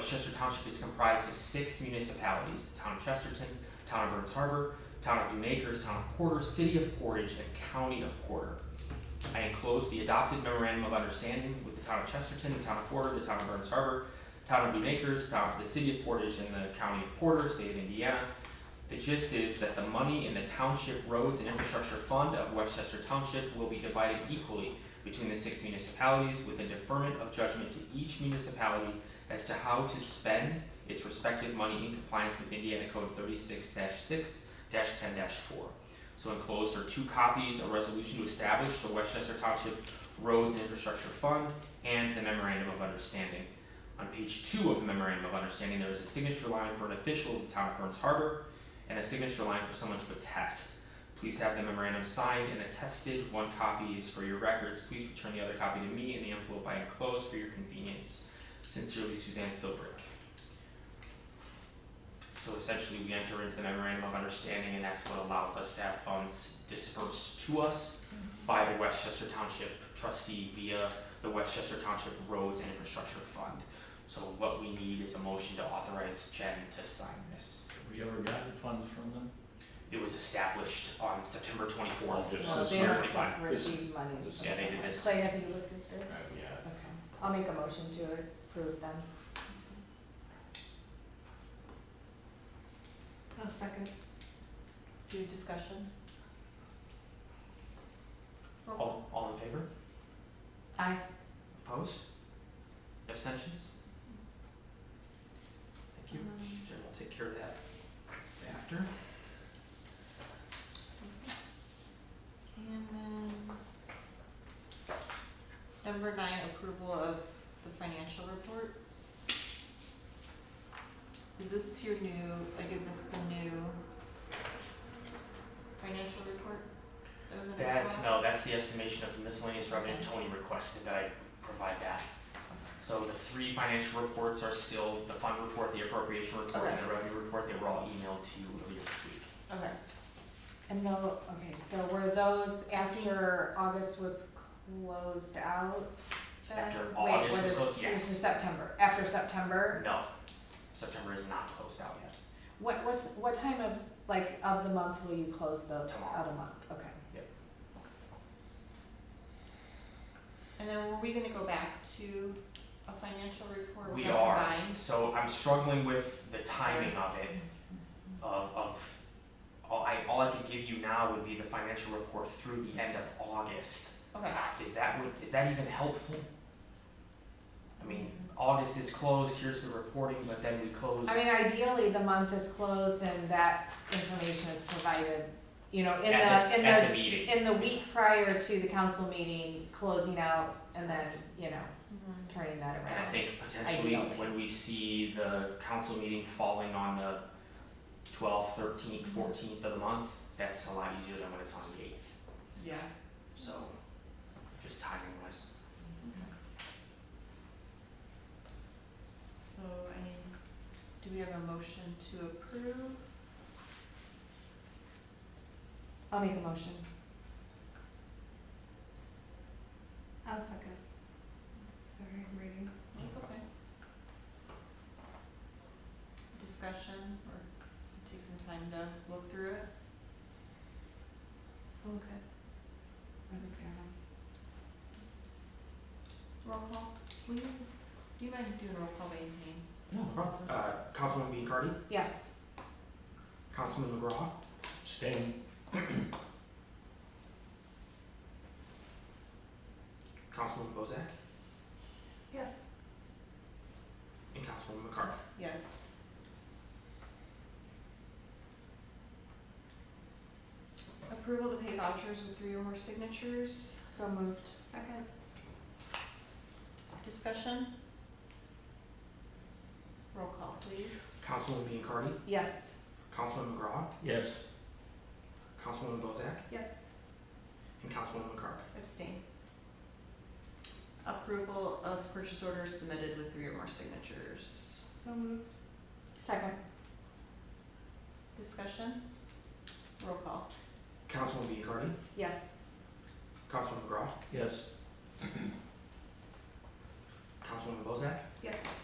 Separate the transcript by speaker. Speaker 1: Chester Township is comprised of six municipalities, the town of Chesterton, town of Burns Harbor, town of Dune Acres, town of Porter, city of Portage, and county of Porter. I enclose the adopted memorandum of understanding with the town of Chesterton, the town of Porter, the town of Burns Harbor, town of Dune Acres, town, the city of Portage, and the county of Porter, state of Indiana. The gist is that the money in the Township Roads and Infrastructure Fund of Westchester Township will be divided equally between the six municipalities with a deferment of judgment to each municipality as to how to spend its respective money in compliance with Indiana Code thirty-six six ten four. So enclosed are two copies, a resolution to establish the Westchester Township Roads and Infrastructure Fund and the memorandum of understanding. On page two of the memorandum of understanding, there is a signature line for an official of the town of Burns Harbor and a signature line for someone to attest. Please have the memorandum signed and attested. One copy is for your records. Please return the other copy to me in the envelope I enclosed for your convenience. Sincerely, Suzanne Philbrick. So essentially, we enter into the memorandum of understanding, and that's what allows us to have funds dispersed to us by the Westchester Township trustee via the Westchester Township Roads and Infrastructure Fund. So what we need is a motion to authorize Jen to sign this.
Speaker 2: Have we ever gotten funds from them?
Speaker 1: It was established on September twenty-fourth.
Speaker 2: Just
Speaker 3: Well,
Speaker 2: this
Speaker 3: they
Speaker 2: one.
Speaker 3: must have
Speaker 1: Fine.
Speaker 3: received money.
Speaker 2: This-
Speaker 3: from
Speaker 1: yeah, they did
Speaker 3: somewhere.
Speaker 1: this.
Speaker 3: Clay, have you looked at this? Okay,
Speaker 2: yes.
Speaker 3: I'll make a motion to approve them.
Speaker 4: A second.
Speaker 3: Do you discussion?
Speaker 1: All, all in favor?
Speaker 3: Aye.
Speaker 1: Opposed? Abstentions? Thank you. Jen will take care of that after.
Speaker 4: And then number nine, approval of the financial report. Is this your new, like, is this the new financial report? that was in the
Speaker 1: That's, no,
Speaker 4: box?
Speaker 1: that's the estimation of miscellaneous revenue Tony requested that I provide that. So the three financial reports are still the fund report, the appropriation report, and the revenue report, they were all emailed to you earlier this week.
Speaker 4: Okay,
Speaker 3: And though, okay, so were those after August was closed out? then?
Speaker 1: After
Speaker 3: Wait,
Speaker 1: August
Speaker 3: what
Speaker 1: was
Speaker 3: is-
Speaker 1: closed, yes.
Speaker 3: This is September, after September,
Speaker 1: No, September is not closed out yet.
Speaker 3: what was, what time of, like, of the month will you close the,
Speaker 1: Tomorrow.
Speaker 3: out of month, okay.
Speaker 4: and then were we gonna go back to a financial report?
Speaker 1: We
Speaker 4: that
Speaker 1: are,
Speaker 4: combined?
Speaker 1: so I'm struggling with the timing of it, of, of, all I, all I could give you now would be the financial report through the end of August.
Speaker 4: Okay.
Speaker 1: Is that, would, is that even helpful? I mean, August is closed, here's the reporting, but then we close.
Speaker 3: I mean, ideally, the month is closed and that information is provided, you know, in
Speaker 1: at
Speaker 3: the, in
Speaker 1: At the
Speaker 3: the,
Speaker 1: meeting,
Speaker 3: in the week prior to the council meeting, closing out and then, you know,
Speaker 4: Mhm.
Speaker 3: turning that around.
Speaker 1: and I think potentially
Speaker 3: Ideally.
Speaker 1: when we see the council meeting falling on the twelfth, thirteenth, fourteenth of the month, that's a lot easier than when it's on the eighth,
Speaker 4: Yeah.
Speaker 1: so, just timing wise.
Speaker 4: So, I mean, do we have a motion to approve?
Speaker 3: I'll make a motion.
Speaker 4: I'll second. Sorry, I'm reading. That's okay. Discussion, or take some time to look through it? Okay. Roll call, will you, do you mind doing roll call by your name?
Speaker 1: No, problem. Uh, Councilman Biancardi,
Speaker 3: Yes,
Speaker 1: Councilman McGraw,
Speaker 2: Abstain.
Speaker 1: Councilman Bozak,
Speaker 4: Yes.
Speaker 1: and Councilman McCarthy.
Speaker 4: Yes. Approval to pay vouchers with three or more signatures.
Speaker 3: so moved.
Speaker 4: Second. Discussion? Roll call, please.
Speaker 1: Councilman Biancardi,
Speaker 3: Yes,
Speaker 1: Councilman McGraw,
Speaker 2: Yes.
Speaker 1: Councilman Bozak,
Speaker 4: Yes.
Speaker 1: and Councilman McCarthy.
Speaker 4: Abstain. Approval of purchase orders submitted with three or more signatures.
Speaker 3: so moved. Second.
Speaker 4: Discussion? Roll call.
Speaker 1: Councilman Biancardi,
Speaker 3: Yes,
Speaker 1: Councilman McGraw,
Speaker 2: Yes.
Speaker 1: Councilman Bozak,
Speaker 4: Yes.